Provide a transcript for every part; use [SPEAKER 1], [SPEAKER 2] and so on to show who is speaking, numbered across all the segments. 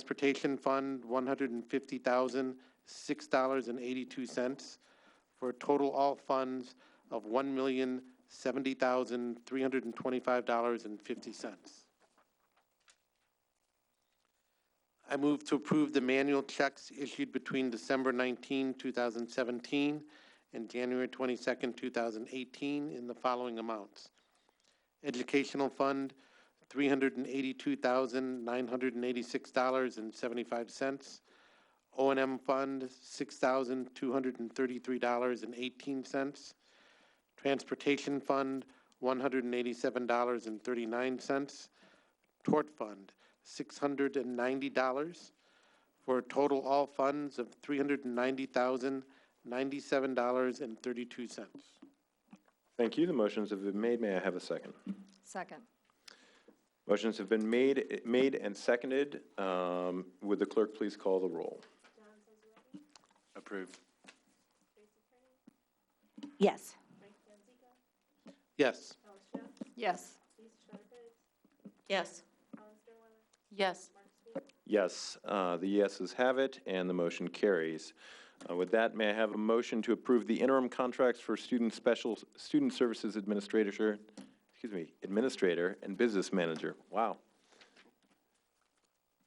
[SPEAKER 1] Transportation Fund, one hundred and fifty thousand, six dollars and eighty-two cents, for a total all funds of one million, seventy thousand, three hundred and twenty-five dollars and fifty cents. I move to approve the manual checks issued between December 19, 2017, and January 22, 2018, in the following amounts. Educational Fund, $382,986.75. O and M Fund, $6,233.18. Transportation Fund, $187.39. Tort Fund, six hundred and ninety dollars, for a total all funds of three hundred and ninety thousand, ninety-seven dollars and thirty-two cents.
[SPEAKER 2] Thank you. The motions have been made. May I have a second?
[SPEAKER 3] Second.
[SPEAKER 2] Motions have been made, made and seconded. Um, Would the clerk please call the roll?
[SPEAKER 1] Approved.
[SPEAKER 4] Yes.
[SPEAKER 1] Yes.
[SPEAKER 3] Yes. Yes. Yes.
[SPEAKER 2] Yes, uh, the yeses have it, and the motion carries. Uh, With that, may I have a motion to approve the interim contracts for student special, student services administrator, excuse me, administrator and business manager? Wow.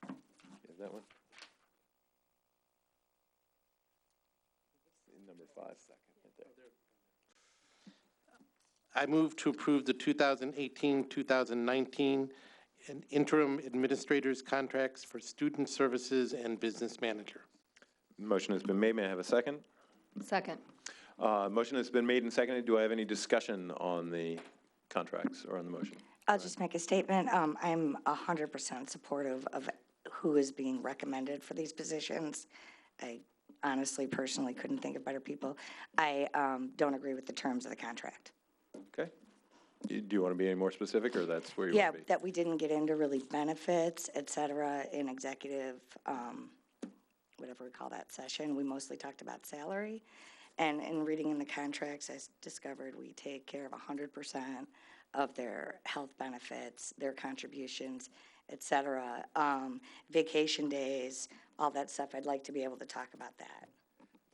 [SPEAKER 2] You have that one? Number five.
[SPEAKER 1] I move to approve the 2018-2019 and interim administrators contracts for student services and business manager.
[SPEAKER 2] Motion has been made. May I have a second?
[SPEAKER 3] Second.
[SPEAKER 2] Uh, Motion has been made and seconded. Do I have any discussion on the contracts or on the motion?
[SPEAKER 4] I'll just make a statement. Um, I'm 100% supportive of who is being recommended for these positions. I honestly, personally couldn't think of better people. I um, don't agree with the terms of the contract.
[SPEAKER 2] Okay. Do do you want to be any more specific, or that's where you
[SPEAKER 4] Yeah,
[SPEAKER 2] want to be?
[SPEAKER 4] that we didn't get into really benefits, et cetera, in executive, um, whatever we call that session. We mostly talked about salary. And in reading in the contracts, I s- discovered we take care of hundred percent of their health benefits, their contributions, et cetera. Um, vacation days, all that stuff. I'd like to be able to talk about that.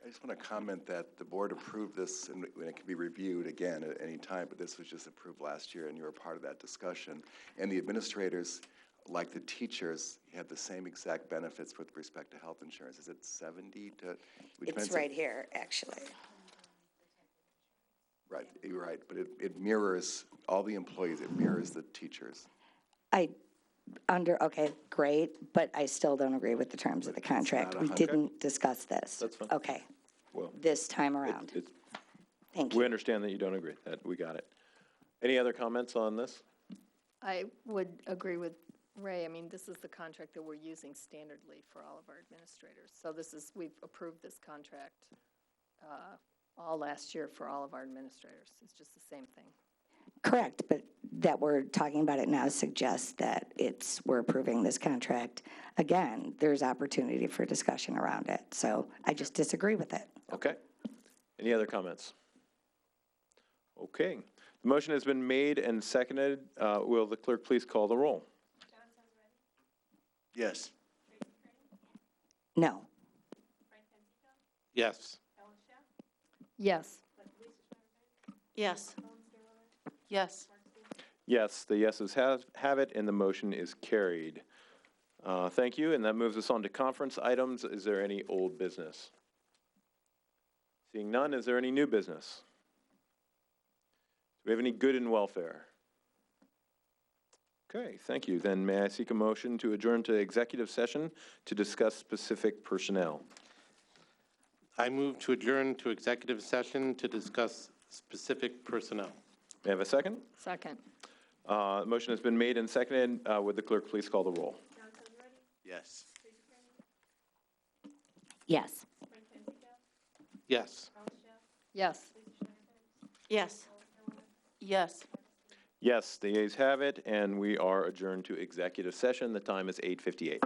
[SPEAKER 5] I just want to comment that the board approved this, and it- and it can be reviewed again at any time, but this was just approved last year, and you were part of that discussion. And the administrators, like the teachers, had the same exact benefits with respect to health insurance. Is it 70 to? it
[SPEAKER 4] It's
[SPEAKER 5] depends-
[SPEAKER 4] right here, actually.
[SPEAKER 5] Right, you're right, but it it mirrors all the employees, it mirrors the teachers.
[SPEAKER 4] I, under, okay, great, but I still don't agree with the terms of the contract.
[SPEAKER 5] not a
[SPEAKER 4] We
[SPEAKER 5] hun-
[SPEAKER 4] didn't discuss this.
[SPEAKER 2] That's fine.
[SPEAKER 4] Okay,
[SPEAKER 2] Well,
[SPEAKER 4] this time
[SPEAKER 2] it-
[SPEAKER 4] around.
[SPEAKER 2] it's-
[SPEAKER 4] Thank
[SPEAKER 2] we
[SPEAKER 4] you.
[SPEAKER 2] understand that you don't agree. That, we got it. Any other comments on this?
[SPEAKER 3] I would agree with Ray. I mean, this is the contract that we're using standardly for all of our administrators. So this is, we've approved this contract uh, all last year for all of our administrators. It's just the same thing.
[SPEAKER 4] Correct, but that we're talking about it now suggests that it's, we're approving this contract. Again, there's opportunity for discussion around it, so I just disagree with it.
[SPEAKER 2] Okay. Any other comments? Okay. The motion has been made and seconded. Uh, Will the clerk please call the roll?
[SPEAKER 5] Yes.
[SPEAKER 4] No.
[SPEAKER 1] Yes.
[SPEAKER 3] Yes.
[SPEAKER 6] Yes. Yes.
[SPEAKER 2] Yes, the yeses have, have it, and the motion is carried. Uh, Thank you, and that moves us on to conference items. Is there any old business? Seeing none, is there any new business? Do we have any good in welfare? Okay, thank you. Then may I seek a motion to adjourn to executive session to discuss specific personnel?
[SPEAKER 1] I move to adjourn to executive session to discuss specific personnel.
[SPEAKER 2] May I have a second?
[SPEAKER 3] Second.
[SPEAKER 2] Uh, Motion has been made and seconded. Uh, Would the clerk please call the roll?
[SPEAKER 5] Yes.
[SPEAKER 4] Yes.
[SPEAKER 1] Yes.
[SPEAKER 3] Yes.
[SPEAKER 6] Yes. Yes.
[SPEAKER 2] Yes, the ayes have it, and we are adjourned to executive session. The time is 8:58.